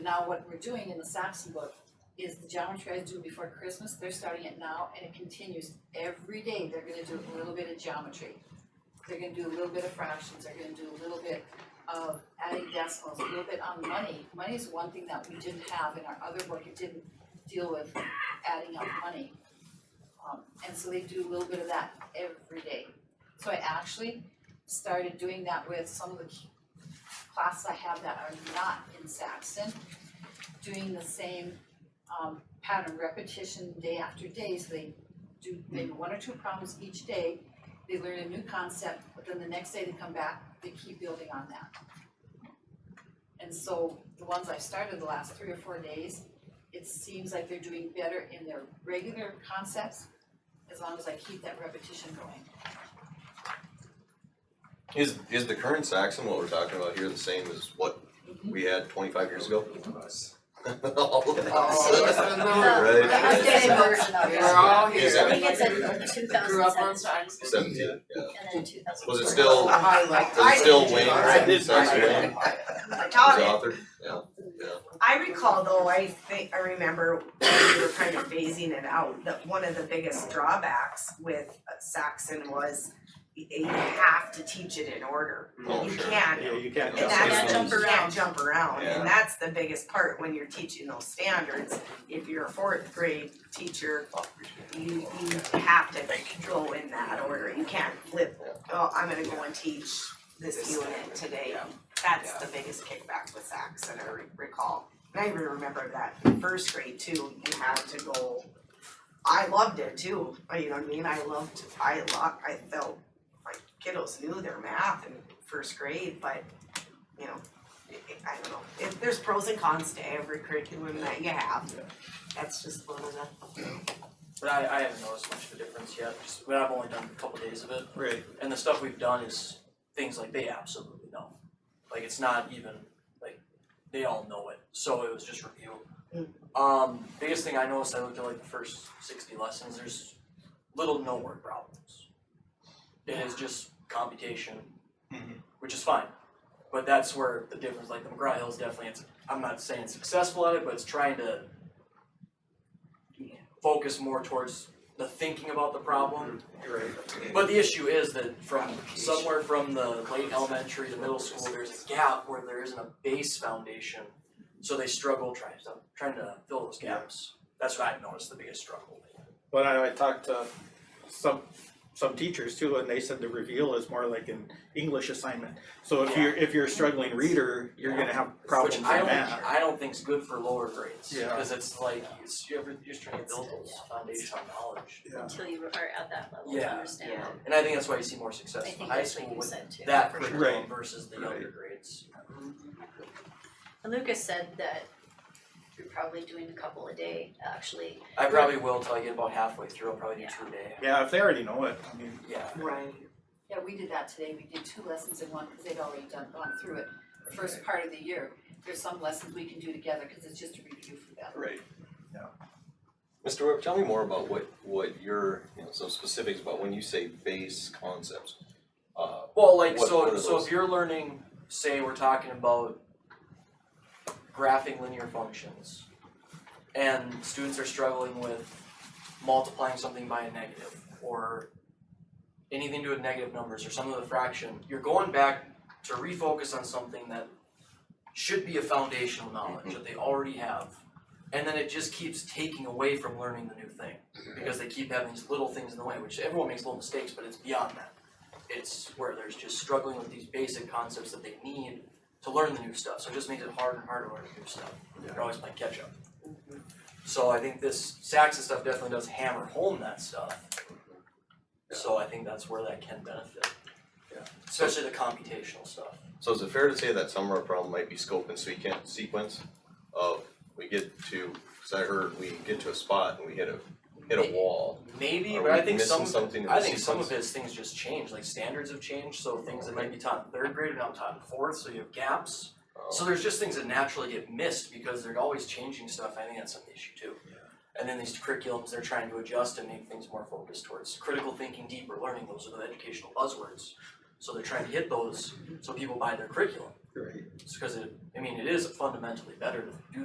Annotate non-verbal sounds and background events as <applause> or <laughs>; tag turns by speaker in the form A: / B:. A: Now, what we're doing in the Saxon book is the geometry I do before Christmas, they're starting it now and it continues. Every day, they're gonna do a little bit of geometry. They're gonna do a little bit of fractions, they're gonna do a little bit of adding decimals, a little bit on money. Money is one thing that we didn't have in our other book, it didn't deal with adding up money. Um, and so they do a little bit of that every day. So I actually started doing that with some of the key- classes I have that are not in Saxon, doing the same um pattern repetition day after day, so they do maybe one or two problems each day. They learn a new concept, but then the next day they come back, they keep building on that. And so the ones I started the last three or four days, it seems like they're doing better in their regular concepts as long as I keep that repetition
B: <laughs>
A: going.
C: Is is the current Saxon what we're talking about here the same as what we had twenty five years ago? <laughs> All of
D: Oh,
C: us. <laughs> Right.
E: The updated version of
B: We're
E: it.
B: all
C: Is
B: here.
E: I
C: that-
E: think it's a two
B: Grew up on
E: thousand seven
B: Saxon.
C: Seventeen, yeah.
E: and then two thousand.
C: Was it still-
B: I like.
C: Does it still
B: I-
C: Wayne?
B: I did.
C: Saxon Wayne?
D: I
C: His
D: taught it.
C: author? Yeah,
D: I recall though, I think, I remember when we were kind of phasing it out, that one of the biggest drawbacks with Saxon was y- you have to teach it in order.
C: oh,
D: You
C: sure.
D: can't,
F: Yeah, you can't.
C: Yeah,
D: and
C: that's-
D: that's,
E: jump
D: you
E: around.
D: can't jump around,
C: Yeah.
D: and that's the biggest part when you're teaching those standards. If you're a fourth grade teacher, you, you have to go in that order, you can't flip, oh, I'm gonna go and teach this unit today. That's the biggest kickback with Saks that I re- recall. And I even remember that in first grade too, you had to go, I loved it too, uh, you know what I mean, I loved, I lo- I felt like kiddos knew their math in first grade, but, you know, i- i- I don't know, if, there's pros and cons to every curriculum that you have. That's just one of the
G: But I, I haven't noticed much of a difference yet, just, but I've only done a couple days of it,
F: Right.
G: and the stuff we've done is things like they absolutely know. Like, it's not even, like, they all know it, so it was just review. Um, biggest thing I noticed, I looked at like the first sixty lessons, there's little no word problems. It is just computation,
F: Mhm.
G: which is fine, but that's where the difference, like the McGraw Hill's definitely, it's, I'm not saying successful at it, but it's trying to focus more towards the thinking about the problem but the issue is that from somewhere from the late elementary to middle school, there's a gap where there isn't a base foundation. So they struggle trying to, trying to fill those gaps. That's what I've noticed the biggest struggle.
F: But I, I talked to some, some teachers too, and they said the reveal is more like an English assignment. So if you're, if you're a struggling reader, you're gonna have problems
G: Which
F: in
G: I don't,
F: math.
G: I don't think's good for lower grades,
F: Yeah.
G: cause it's like, it's, you're, you're just trying to build those foundational knowledge.
F: Yeah.
E: Until you are at that level to
G: Yeah,
E: understand.
D: yeah.
G: And I think that's why you see more
E: I
G: success in
E: think
G: high
E: that's
G: school
E: what you
G: with
E: said too.
G: that
E: for sure.
F: Right.
G: curriculum versus the younger grades.
E: And Lucas said that you're probably doing a couple a day, actually.
G: I probably will till I get about halfway through, I'll probably do
E: Yeah.
G: two a day,
F: Yeah, if they already know it, I mean,
G: yeah.
D: Right.
A: Yeah, we did that today, we did two lessons in one, cause they'd already done, gone through it, the first part of the year. There's some lessons we can do together, cause it's just a review for them.
C: Right. Mr. Webb, tell me more about what what your, you know, some specifics about when you say base concepts. Uh,
G: Well, like
C: What- what
G: so,
C: are
G: so
C: those?
G: if you're learning, say we're talking about graphing linear functions, and students are struggling with multiplying something by a negative or anything to do with negative numbers or some of the fraction, you're going back to refocus on something that should be a foundational
C: Mm-hmm.
G: knowledge that they already have. And then it just keeps taking away from learning the new thing because they keep having these little things in the way, which everyone makes little mistakes, but it's beyond that it's where there's just struggling with these basic concepts that they need to learn the new stuff, so it just makes it harder and harder to learn the new stuff. They're always playing catch up. So I think this Saxon stuff definitely does hammer home that stuff. So I think that's where that can benefit.
C: Yeah.
G: Especially the computational stuff.
C: So is it fair to say that some of our problem might be scope and sequen- sequence of we get to, cause I heard we get to a spot and we hit a hit a wall.
G: Maybe,
C: Are
G: but I
C: we
G: think
C: missing
G: some,
C: something in
G: I
C: the
G: think some of
C: sequence?
G: his things just change, like standards have changed, so things that might be taught in third grade are now taught in fourth, so you have gaps. So
C: Uh,
G: there's just things that naturally get missed because they're always changing stuff. I think that's an issue too. And then these curriculums, they're trying to adjust and make things more focused towards critical thinking, deeper learning. Those are the educational buzzwords. So they're trying to hit those so people buy their curriculum.
F: right.
G: because it, I mean, it is fundamentally better to do